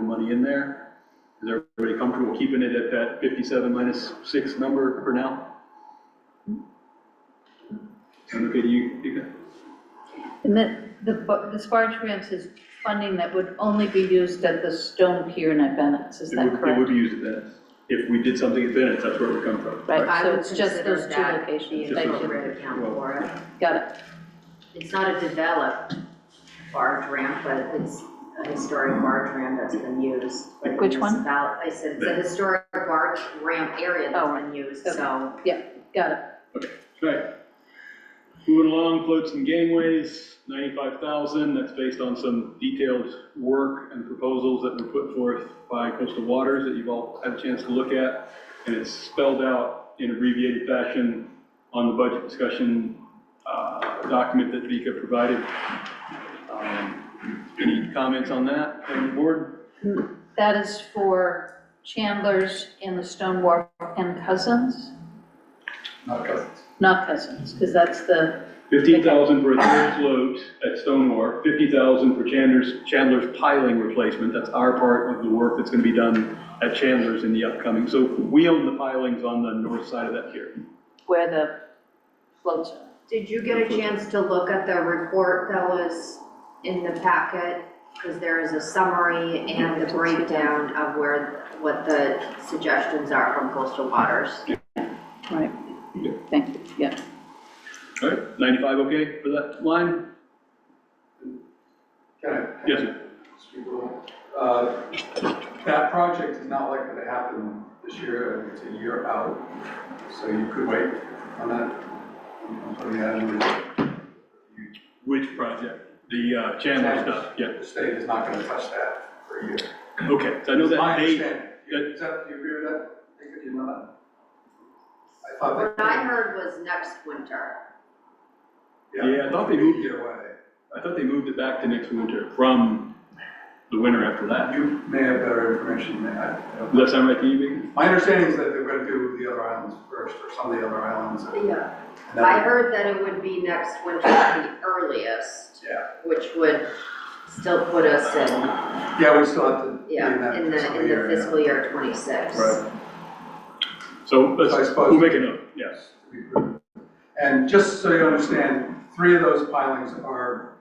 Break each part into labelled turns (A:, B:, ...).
A: money in there. Is everybody comfortable keeping it at that 57 minus 6 number for now? And okay, you, you got-
B: And the, the, bu- the barge ramps is funding that would only be used at the stone pier in at Bennett's, is
A: it
B: that
A: would, it would
B: correct?
A: be used at that. If we did something at Bennett's, that's where it would come from.
B: Right,
C: I
B: so
C: would
B: it's just
C: consider
B: those two
C: that
B: locations,
C: The
B: thank you,
C: appropriate account for it.
B: got it,
C: It's not a developed barge ramp, but it's a historic barge ramp that's been used. by the
B: Which one?
C: municipal- I said it's a
A: The-
C: historic barge ramp area that's
B: Oh,
C: been used,
B: okay.
C: so.
B: got it.
A: Right. Moving along, floats and gangways, ninety-five thousand, that's based on some detailed work and proposals that were put forth by Coastal Waters that you've all had a chance to look at. And it's spelled out in abbreviated fashion on the budget discussion, uh, document that Vika provided. Um, Any comments on that from the board?
B: That is for Chandler's and the Stone Wharf and Cousins? Not Cousins, because that's the,
A: Fifteen thousand for a third float at Stonewall, fifty thousand for Chandler's, Chandler's piling replacement, that's our part of the work that's gonna be done at Chandler's in the upcoming, so we own the pilings on the north side of that pier.
B: where the floats are.
C: Did you get a chance to look at the report that was in the packet? Because there is a summary and the breakdown of where, what the suggestions are from coastal waters.
B: Right,
A: Yeah.
B: thank you, yeah.
A: Alright, ninety-five okay for that line?
D: Okay.
A: Yes, sir.
D: Uh, That project is not likely to happen this year, it's a year out, so you could wait on that. I'm putting that in the- you-
A: Which project? The uh, Chandler stuff, yeah,
D: The state is not gonna touch that for a year.
A: okay, so I know
D: My
A: that they,
D: understanding. You- Is that, you agree with that? Think that you know that? I thought
C: What
D: that.
C: I heard was next winter.
A: Yeah, I thought they moved-
D: Either way,
A: I thought they moved it back to next winter from the winter after that.
D: you may have better information than I. I don't know.
A: Does that sound right to you, Vicky?
D: My understanding is that they're gonna do the other islands first, or some of the other islands. and
C: Yeah.
D: then-
C: I heard that it would be next winter at the earliest.
D: Yeah,
C: which would still put us in,
D: yeah, we still have to be in
C: yeah,
D: that
C: in the,
D: fiscal
C: in the
D: year, yeah.
C: fiscal year twenty-six.
D: Right,
A: So,
D: So I
A: let's,
D: suppose-
A: we'll make a note, yes.
D: yes. to be prudent. And just so you understand, three of those pilings are,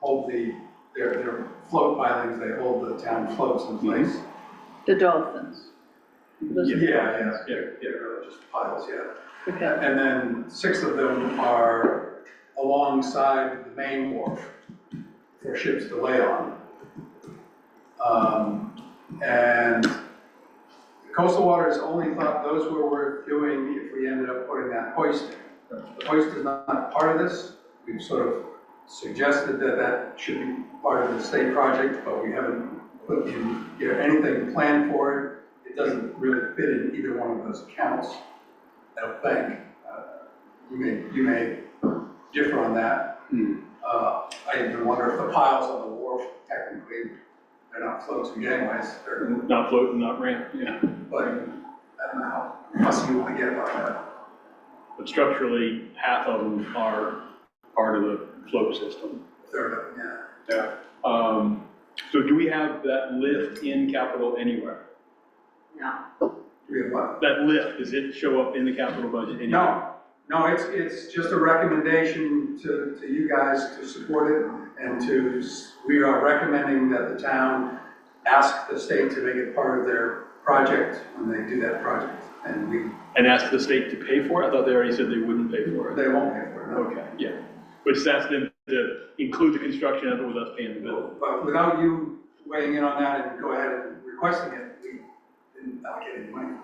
D: hold the, they're, they're float pilings, they hold the town floats in place.
B: The dolphins. Those-
A: Yeah.
D: Yeah, yeah,
A: Yeah,
D: they're,
A: yeah.
D: they're just piles, yeah.
B: Okay,
D: And then six of them are alongside the main wharf for ships to lay on. Um, and Coastal Waters only thought those were worth doing if we ended up putting that hoist in. The hoist is not not part of this. We've sort of suggested that that should be part of the state project, but we haven't put in, you know, anything planned for it. It doesn't really fit in either one of those accounts, I don't think. Uh, You may, you may differ on that.
A: Hmm.
D: Uh, I even wonder if the piles on the wharf technically, they're not floats and gangways, they're
A: Not floating, not ramp, yeah.
D: but I don't know how fussy you want to get about that.
A: But structurally, half of them are part of the float system.
D: Third of them, yeah.
A: Yeah. Um, so do we have that lift in capital anywhere?
C: No,
D: Do we have what?
A: That lift, does it show up in the capital budget anywhere?
D: No, no, it's, it's just a recommendation to, to you guys to support it and to, s- we are recommending that the town ask the state to make it part of their project when they do that project. And we,
A: And ask the state to pay for it? I thought they already said they wouldn't pay for it.
D: they won't pay for it, no.
A: Okay, yeah. Which that's them to include the construction of it with us paying the bill.
D: But without you weighing in on that and go ahead and requesting it, we didn't allocate any money.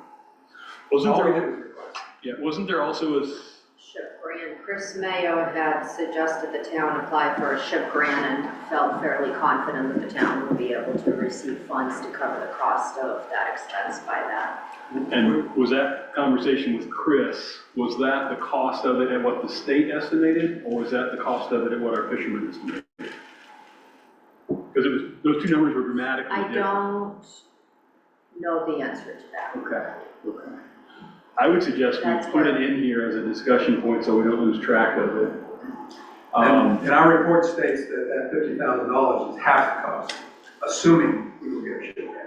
A: Wasn't
D: All we
A: there,
D: did was request.
A: yeah, wasn't there also a, s-
C: ship grant, Chris Mayo had suggested the town apply for a ship grant and felt fairly confident that the town would be able to receive funds to cover the cost of that expense by that.
A: and was that conversation with Chris, was that the cost of it at what the state estimated? Or was that the cost of it at what our fishermen estimated? Because it was, those two numbers were dramatically
C: I
A: different.
C: don't know the answer to that.
A: Okay, okay. I would suggest
C: That's
A: we put it
C: where-
A: in here as a discussion point so we don't lose track of it. Um,
D: And, and our report states that that fifty thousand dollars is half the cost, assuming we will get a ship grant.